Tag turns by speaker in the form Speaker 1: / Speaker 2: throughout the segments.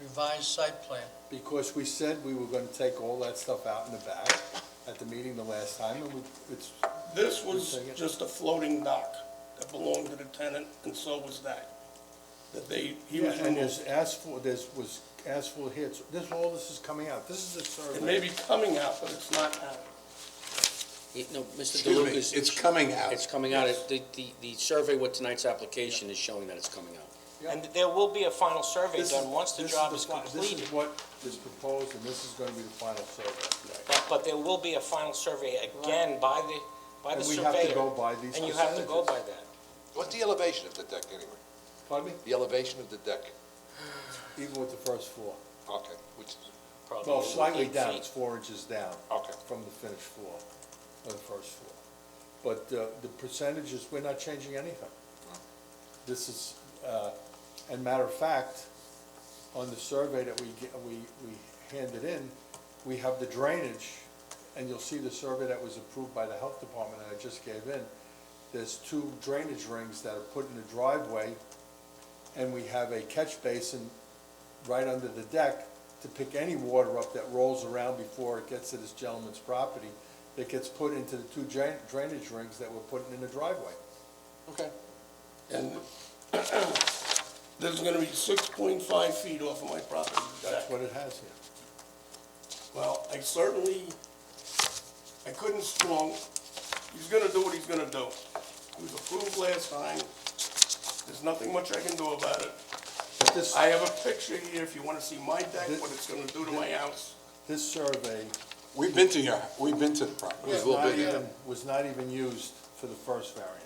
Speaker 1: revised site plan.
Speaker 2: Because we said we were gonna take all that stuff out in the back at the meeting the last time, and we, it's,
Speaker 3: This was
Speaker 2: Second.
Speaker 3: just a floating dock that belonged to the tenant, and so was that. That they, he was
Speaker 2: and
Speaker 3: removed.
Speaker 2: there's asphalt, there's, was asphalt here, so this, all this is coming out, this is a survey.
Speaker 3: It may be coming out, but it's not out.
Speaker 4: Yeah, No, Mr.
Speaker 5: Excuse me,
Speaker 4: DeLuca,
Speaker 5: it's coming out.
Speaker 4: it's coming out, It- the, the, the survey with tonight's application is showing that it's coming out.
Speaker 6: And there will be a final survey
Speaker 2: This is-
Speaker 6: done once the
Speaker 2: this
Speaker 6: job
Speaker 2: the
Speaker 6: is
Speaker 2: fi- This
Speaker 6: completed,
Speaker 2: is what is proposed, and this is gonna be the final survey.
Speaker 6: but, but there will be a final survey again by the, by the
Speaker 2: And we
Speaker 6: surveyor.
Speaker 2: have to go by these
Speaker 6: And you have to go by
Speaker 2: percentages.
Speaker 6: that.
Speaker 5: What's the elevation of the deck anyway?
Speaker 2: Pardon me?
Speaker 5: The elevation of the deck,
Speaker 2: Even with the first floor.
Speaker 5: okay, which is,
Speaker 6: probably
Speaker 2: Well, slightly
Speaker 6: eight
Speaker 2: down,
Speaker 6: feet.
Speaker 2: it's four inches down.
Speaker 5: Okay.
Speaker 2: From the finished floor, or the first floor. But uh, the percentages, we're not changing anything. This is, uh, and matter of fact, on the survey that we, ge- we, we handed in, we have the drainage, and you'll see the survey that was approved by the health department that I just gave in. There's two drainage rings that are put in the driveway, and we have a catch basin right under the deck to pick any water up that rolls around before it gets to this gentleman's property that gets put into the two drain- drainage rings that we're putting in the driveway.
Speaker 5: okay.
Speaker 3: And there's gonna be six point five feet off of my property.
Speaker 2: That's what it has here.
Speaker 3: Well, I certainly, I couldn't strong, he's gonna do what he's gonna do. He was approved last time. There's nothing much I can do about it.
Speaker 2: But this,
Speaker 3: I have a picture here if you wanna see my deck,
Speaker 2: This-
Speaker 3: what it's gonna do to my house.
Speaker 2: this survey
Speaker 5: We've been to your, we've been to the property.
Speaker 2: was not even, was not even used for the first variance.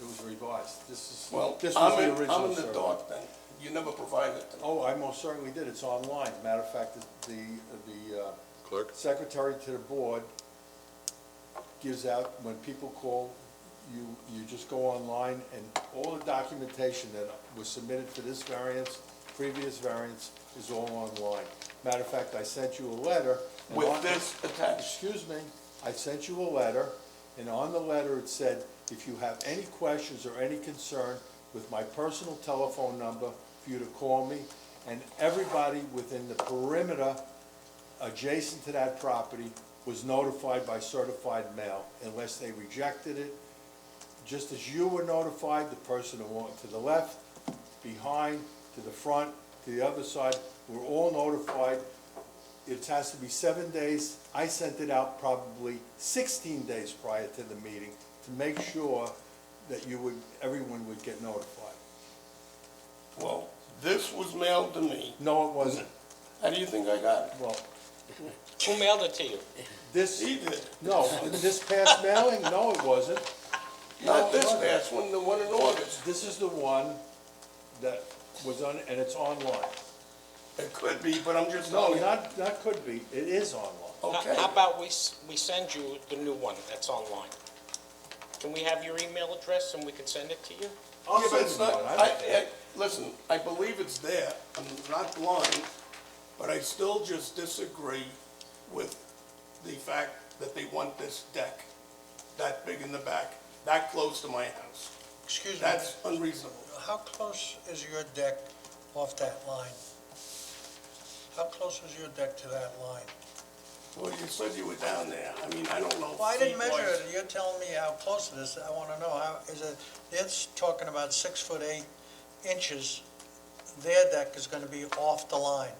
Speaker 2: It was revised. This is,
Speaker 3: Well,
Speaker 2: this was
Speaker 3: I'm
Speaker 2: the
Speaker 3: in, I'm
Speaker 2: original
Speaker 3: in the
Speaker 2: survey.
Speaker 3: dark then. You never provided it.
Speaker 2: Oh, I most certainly did. It's online. Matter of fact, the, the, uh,
Speaker 5: Clerk?
Speaker 2: secretary to the board gives out, when people call, you, you just go online and all the documentation that was submitted for this variance, previous variance, is all online. Matter of fact, I sent you a letter. and
Speaker 3: With
Speaker 2: on-
Speaker 3: this attached.
Speaker 2: Excuse me, I sent you a letter, and on the letter it said, if you have any questions or any concern with my personal telephone number, for you to call me, and everybody within the perimeter adjacent to that property was notified by certified mail unless they rejected it. Just as you were notified, the person who walked to the left, behind, to the front, to the other side, were all notified. It has to be seven days. I sent it out probably sixteen days prior to the meeting to make sure that you would, everyone would get notified.
Speaker 3: Well, this was mailed to me.
Speaker 2: No, it wasn't.
Speaker 3: How do you think I got it?
Speaker 2: Well,
Speaker 6: Who mailed it to you?
Speaker 2: this,
Speaker 3: He did.
Speaker 2: no, this past mailing, no, it wasn't.
Speaker 3: Not
Speaker 2: No, it
Speaker 3: this
Speaker 2: wasn't.
Speaker 3: past one, the one in August.
Speaker 2: This is the one that was on, and it's online.
Speaker 3: It could be, but I'm just
Speaker 2: No,
Speaker 3: telling you.
Speaker 2: not, not could be, it is online.
Speaker 6: How-
Speaker 3: Okay.
Speaker 6: How about we, s- we send you the new one that's online? Can we have your email address and we can send it to you?
Speaker 2: I'll
Speaker 3: Yeah, but
Speaker 2: send
Speaker 3: it's
Speaker 2: you
Speaker 3: not,
Speaker 2: one, I
Speaker 3: I,
Speaker 2: don't-
Speaker 3: I, listen, I believe it's there, I'm not blind, but I still just disagree with the fact that they want this deck that big in the back, that close to my house.
Speaker 1: Excuse me,
Speaker 3: That's unreasonable.
Speaker 1: how close is your deck off that line? How close is your deck to that line?
Speaker 3: Well, you said you were down there, I mean, I don't know.
Speaker 1: Well, I didn't measure
Speaker 3: feet-wise.
Speaker 1: it, you're telling me how close it is, I wanna know, how, is it, it's talking about six foot eight inches, their deck is gonna be off the line.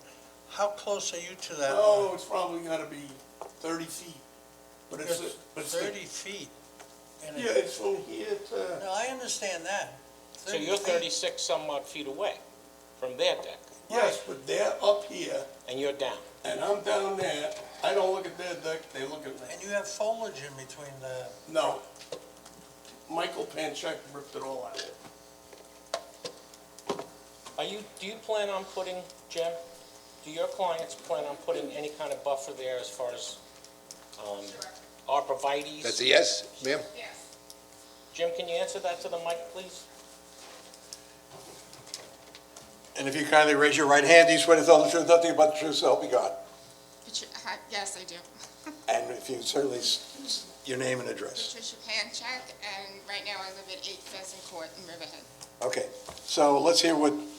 Speaker 1: How close are you to that line?
Speaker 3: Oh, it's probably gotta be thirty feet, but it's,
Speaker 1: It's
Speaker 3: but it's,
Speaker 1: Thirty feet. and it-
Speaker 3: yeah, it's from here to,
Speaker 1: No, I understand that.
Speaker 6: So you're
Speaker 1: feet.
Speaker 6: thirty-six some odd feet away from their deck,
Speaker 3: yes, but they're up here,
Speaker 6: and you're down.
Speaker 3: and I'm down there, I don't look at their deck, they look at me.
Speaker 1: And you have foliage in between the,
Speaker 3: No. Michael Pancheck ripped it all out.
Speaker 6: Are you, do you plan on putting, Jim, do your clients plan on putting any kind of buffer there as far as, um, arborvitae's?
Speaker 5: That's a yes, ma'am?
Speaker 7: Yes,
Speaker 6: Jim, can you answer that to the mic, please?
Speaker 5: And if you kindly raise your right hand, do you swear to tell the truth, nothing but the truth, so help you God?
Speaker 7: Patri- hi- yes, I do.
Speaker 5: And if you certainly, s- s- your name and address.
Speaker 7: Patricia Pancheck, and right now I live at 8 Pheasant Court in Riverhead.
Speaker 5: Okay, so let's hear what